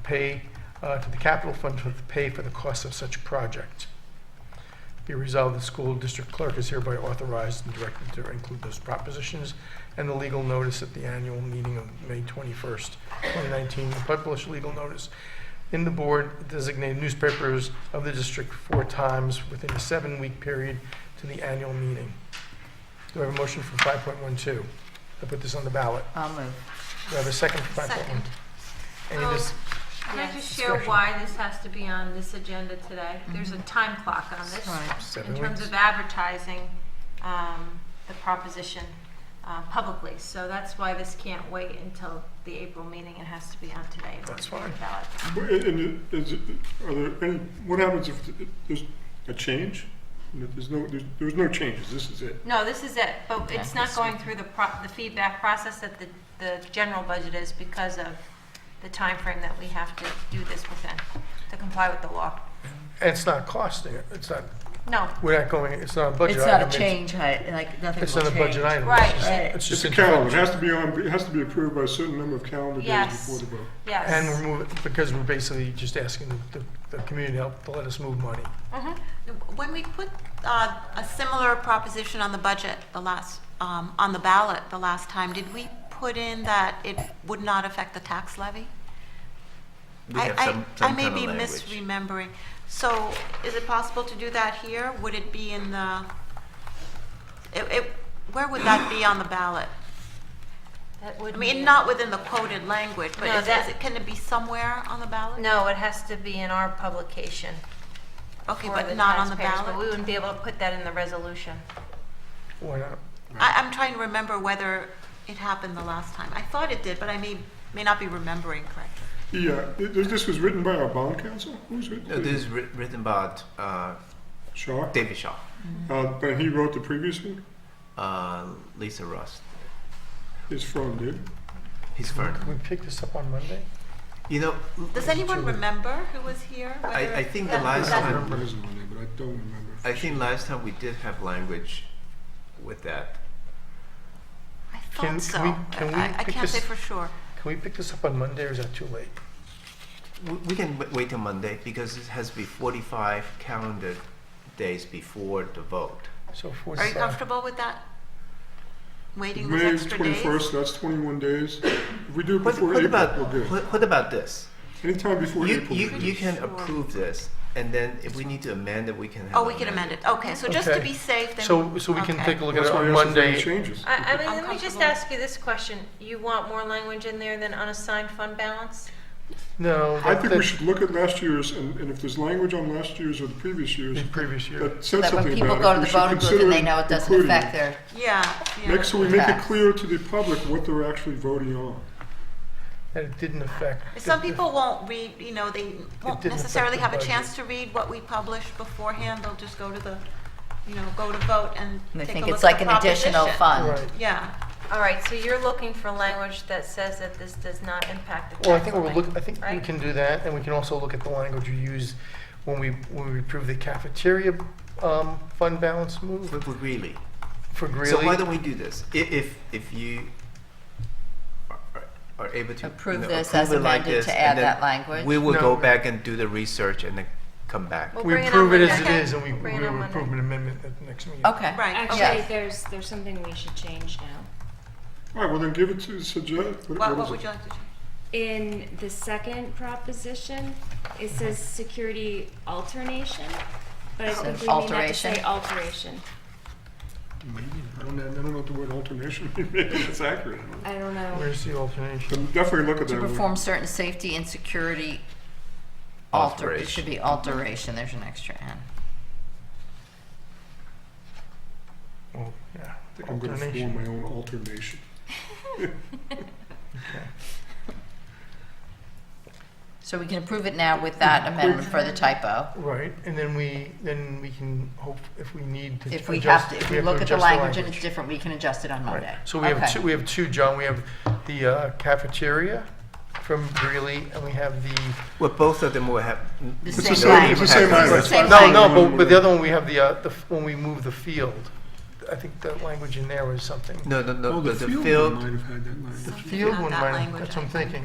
pay, uh, to the capital fund to pay for the cost of such project. Be resolved, the school district clerk is hereby authorized and directed to include those propositions and the legal notice at the annual meeting of May 21st, 2019, and publish legal notice in the board designated newspapers of the district four times within a seven-week period to the annual meeting. Do I have a motion for 5.12? I put this on the ballot. I'll move. Do I have a second for 5.1? Second. Oh, Any dis- Can I just share Discussion. why this has to be on this agenda today? Mm-hmm. There's a time clock on this. Right. Seven In terms weeks. of advertising um, the proposition uh, publicly. So that's why this can't wait until the April meeting. It has to be on today. That's fine. Ballot. Well, And and is, it- are there any, what happens if th- there's a change? There's no, there's, there's no changes, this is it. No, this is it, but Yeah, it's not this going through the pro, the feedback process that the, the general budget is because of the time frame that we have to do this within, to comply with the law. And It's not costing, it. it's not, No, we're not going, it's not a budget It's item. not a change, hi- like, nothing will change. It's not a budget item. Right. It's just- Right. It's It's just a information. calendar, it has to be on, it has to be approved by a certain number of calendar days Yes. before the vote. yes. And we're moving, because we're basically just asking the- the, the community to help to let us move money. Mm-hmm. When we put uh, a similar proposition on the budget, the last, um, on the ballot the last time, did we put in that it would not affect the tax levy? We I have some, I- some kind of I may be language. misremembering. So is it possible to do that here? Would it be in the, it- it- where would that be on the ballot? That would I mean, be- not within the quoted language, but No, is- that- is it, can it be somewhere on the ballot? No, it has to be in our publication. Okay, for but not on the taxpayers, ballot? But we wouldn't be able to put that in the resolution. Why not? I, I'm trying to remember whether it happened the last time. I thought it did, but I may, may not be remembering correctly. Yeah, uh, th- th- this was written by our bond council, who's it? No, this is writ- written about uh, Shaw, David Shaw, uh, but he wrote the previous one, uh, Lisa Ross, his firm did. his firm. Can we pick this up on Monday? You know, Does anyone remember who was here? I, Whether- I think the Yeah, last I that's- time, remember his one there, but I don't remember. I think last time we did have language with that. I Can- thought so. can we- can we I, I pick can't say this- for sure. Can we pick this up on Monday, or is that too late? We, we can w- wait till Monday because it has to be 45 calendar days before the vote. So Are you 45. comfortable with that? Waiting those May extra days? twenty-first, that's twenty-one days. If we do it What, before what April, about we're good. what, what about this? Anytime before You, April. you, we're you good. can approve this, and then if we need to amend it, we can. Have Oh, we can amend it. Okay, so just to Okay. be safe, then. So, so we can okay. take a look at That's it why I on asked if there were any Monday. changes. I, I mean, let me just Uncomfortable. ask you this question. You want more language in there than unassigned fund balance? No, I that, think we that, should look at last year's, and, and if there's language on last year's or the previous year's the previous year. that So says that when something people about go it, to we the should voting booth consider and they know it doesn't including affect it. their, Yeah, Make yeah. so we make it Facts. clear to the public what they're actually voting on. That it didn't affect. Some people won't read, you know, they won't didn't affect necessarily the have a budget. chance to read what we published beforehand. They'll just go to the, you know, go to vote and they take a think look it's at like the an additional proposition. Right. fund. Yeah. All right, so you're looking for language that says that this does not impact the tax Well, I think we'll levy, look, I think we right? can do that, and we can also look at the language we used when we, when we approved the cafeteria, um, fund balance move But really, for So why Greeley. don't we do this? I- If, if you are- are- are able to. you Approve know, this as approve it like amended this, to and add then that language? We will go No. back and do the research and then come back. We'll We bring on approve it as Monday. it is, and we, Bring it we on will Monday. approve an amendment at the next meeting. Okay. Right. Actually, Yes. there's, there's something we should change now. All right, well then give it to, suggest, what, What, what what is would it? you like to change? In the second proposition, it says security alternation, but I think Says we may have to say alteration. alteration. I don't, know- I don't know what the word alternation means, it's accurate. I don't know. I don't know. Where's the alternation? But Definitely look at To that. perform certain safety and security alter, it should Alteration. be alteration, there's an extra N. Well, yeah. I think I'm gonna form my own alternation. So we can approve it now with that amendment for the typo. Right, and then we, then we can hope, if we need to If we adjust- have to, if we look at the adjust language and it's different, we can adjust it on Right. Monday. So we have Okay. two, we have two, John, we have the uh, cafeteria from Greeley, and we have the, Well, both of them will have. n- The no same impact language. on It's the same this. language. Same no, thing. no, but, but the other one, we have the, uh, the, f- when we move the field. I think the language in there was something. No, no, no, Oh, but the one field Might have had that language. Field Not one, that might- language, that's what I'm I think. thinking.